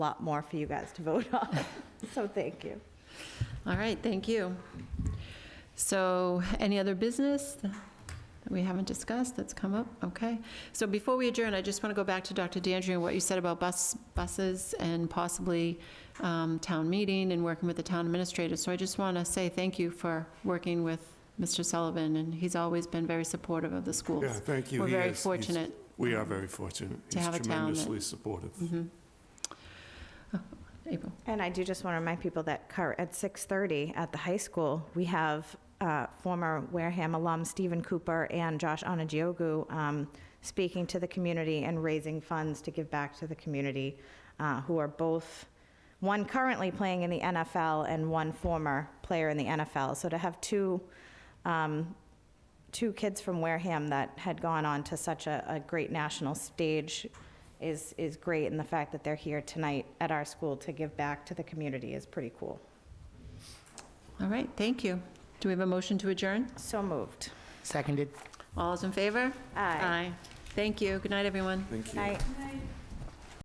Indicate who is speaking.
Speaker 1: lot more for you guys to vote on. So thank you.
Speaker 2: All right, thank you. So any other business that we haven't discussed that's come up? Okay. So before we adjourn, I just want to go back to Dr. Dandrian, what you said about bus, buses and possibly um, town meeting and working with the town administrator. So I just want to say thank you for working with Mr. Sullivan, and he's always been very supportive of the schools.
Speaker 3: Yeah, thank you.
Speaker 2: We're
Speaker 3: He
Speaker 2: very
Speaker 3: is. He's-
Speaker 2: fortunate.
Speaker 3: We are very fortunate.
Speaker 2: To have a
Speaker 3: He's
Speaker 2: town that-
Speaker 3: tremendously supportive.
Speaker 2: Mhm. Oh, April.
Speaker 1: And I do just want to remind people that cur- at 6:30 at the high school, we have uh, former Wareham alum Stephen Cooper and Josh Onagiogu um, speaking to the community and raising funds to give back to the community, uh, who are both, one currently playing in the NFL and one former player in the NFL. So to have two um, two kids from Wareham that had gone on to such a, a great national stage is, is great, and the fact that they're here tonight at our school to give back to the community is pretty cool.
Speaker 2: All right, thank you. Do we have a motion to adjourn?
Speaker 1: So moved.
Speaker 4: Seconded.
Speaker 2: All those in favor?
Speaker 1: Aye.
Speaker 2: Thank you. Good night, everyone.
Speaker 3: Thank you.
Speaker 1: Night.